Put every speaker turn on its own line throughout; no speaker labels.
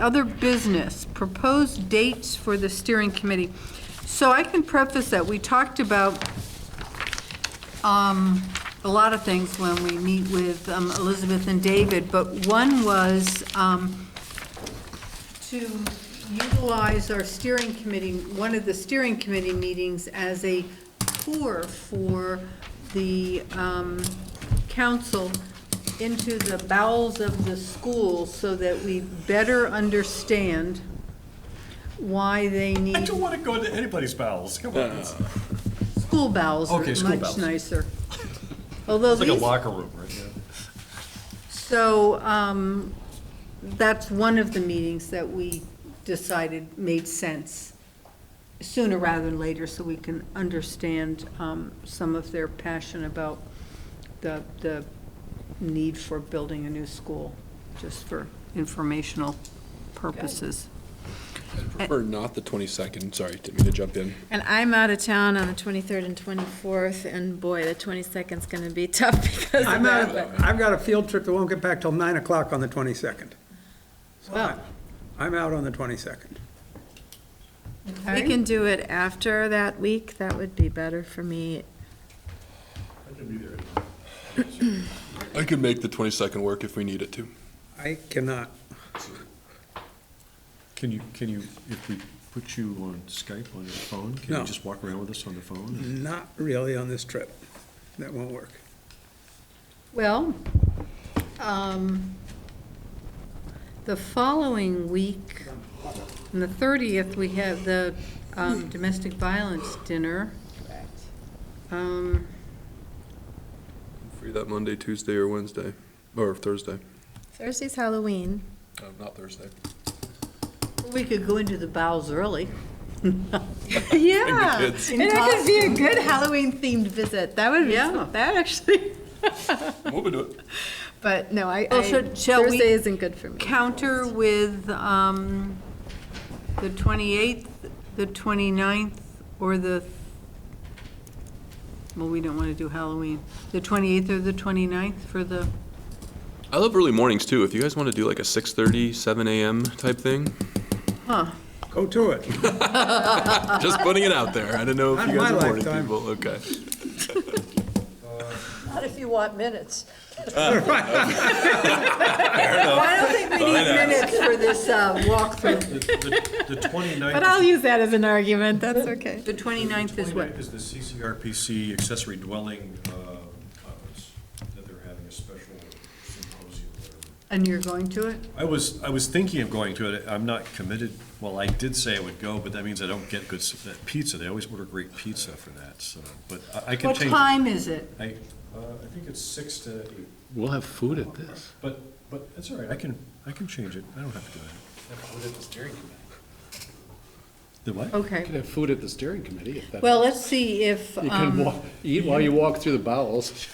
Other business, proposed dates for the steering committee. So I can preface that, we talked about um, a lot of things when we meet with um, Elizabeth and David, but one was um, to utilize our steering committee, one of the steering committee meetings as a tour for the um, council into the bowels of the school so that we better understand why they
I
need,
don't want to go into anybody's bowels. Come on. It's
school bowels are
Okay, school
much
bowels.
nicer. Although
it's like a
these
locker room, right? Yeah.
So um, that's one of the meetings that we decided made sense sooner rather than later, so we can understand um, some of their passion about the, the need for building a new school, just for informational purposes.
Or not the 22nd, sorry, didn't mean to jump in.
And I'm out of town on the 23rd and 24th, and boy, the 22nd's going to be tough because of
I'm out,
that.
of-
but-
I've got a field trip that won't get back till nine o'clock on the twenty-second.
Well,
I'm out on the twenty-second.
we can do it after that week, that would be better for me.
I can make the 22nd work if we need it to.
I cannot,
Can you, can you, if we put you on Skype on your phone, can
No. Mm-hmm.
you just walk around with us on the phone?
not really on this trip. That won't work.
Well, um, the following week, on the 30th, we have the um, domestic violence dinner. Um,
Free that Monday, Tuesday, or Wednesday, or Thursday.
Thursday's Halloween.
No, Oh, Not Thursday.
We could go into the bowels early.
Yeah.
kids.
And that could be a good Halloween-themed visit, that would be,
Yeah.
that actually,
We'll do it.
but no, I,
Well,
I-
should- shall we-
Thursday isn't good for me.
Counter with um, the 28th, the 29th, or the, well, we don't want to do Halloween, the 28th or the 29th for the,
I love early mornings, too. If you guys want to do like a 6:30, 7 a.m. type thing,
Go to it.
just putting it out there. I don't know if
Not
you
in
guys are
my
morning
lifetime.
people. Okay.
Not if you want minutes.
I don't think we need minutes for this uh, walkthrough.
The 29th.
But I'll use that as an argument, that's okay.
The 29th is what?
the CCRPC accessory dwelling uh, conference that they're having a special symposium. or whatever.
And you're going to it?
I was, I was thinking of going to it. I'm not committed. Well, I did say I would go, but that means I don't get good s- that pizza. They always order great pizza for that, so, but I I can
What
change. it.
time is it?
I, uh, I think it's six to eight,
We'll have food at this.
but, but it's all right. I can, I can change it. I don't have to do it. The what?
You
Okay.
can have food at the steering committee if that.
Well, let's see if,
You can
um,
wa- eat while you walk through the bowels.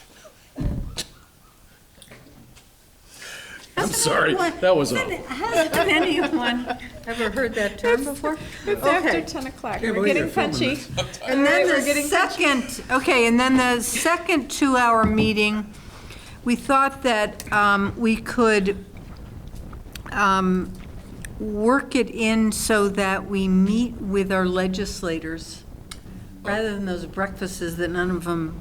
I'm sorry,
What?
that was
Hasn't
awful.
hasn't anyone ever heard that term before?
It's
after
10 o'clock,
Can't believe you're filming this.
And then the second, okay, and then the second two-hour meeting, we thought that um, we could um, work it in so that we meet with our legislators, rather than those breakfasts that none of them,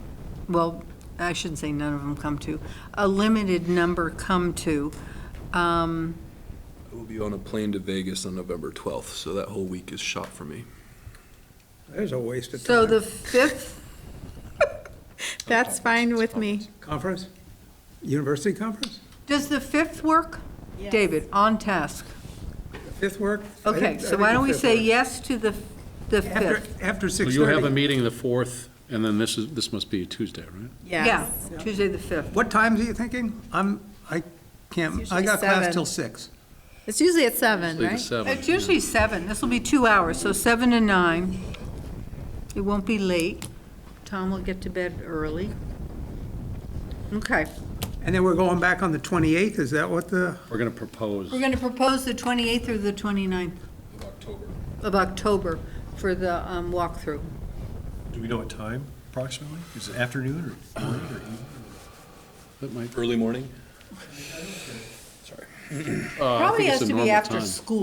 well, I shouldn't say none of them come to, a limited number come to. Um,
I will be on a plane to Vegas on November 12th, so that whole week is shot for me.
There's a waste of
So the
time.
5th,
That's fine with me.
Conference? University conference?
does the 5th work? David, on task.
Fifth work? I think- I
Okay, so
think
why
the
don't we
fifth
say
work.
yes to the, the
After,
5th?
after
So
six
you have a
thirty.
meeting the 4th, and then this is, this must be Tuesday, right?
Yeah,
Yes.
Tuesday the 5th.
What times are you thinking? I'm, I can't,
It's
I
usually
got class
seven.
till six.
It's usually at 7,
Usually the
right?
7th,
It's usually 7, this will be two hours, so 7 to 9. It won't be late. Tom will get to bed early. Okay,
And then we're going back on the twenty-eighth, is that what the,
We're going to propose.
we're going to propose the 28th or the 29th
Of October.
of October for the um, walkthrough.
Do we know what time approximately? Is it afternoon or morning or evening?
That might-
Early morning?
Probably
think
has
it's a
to be
normal
after
time.
school.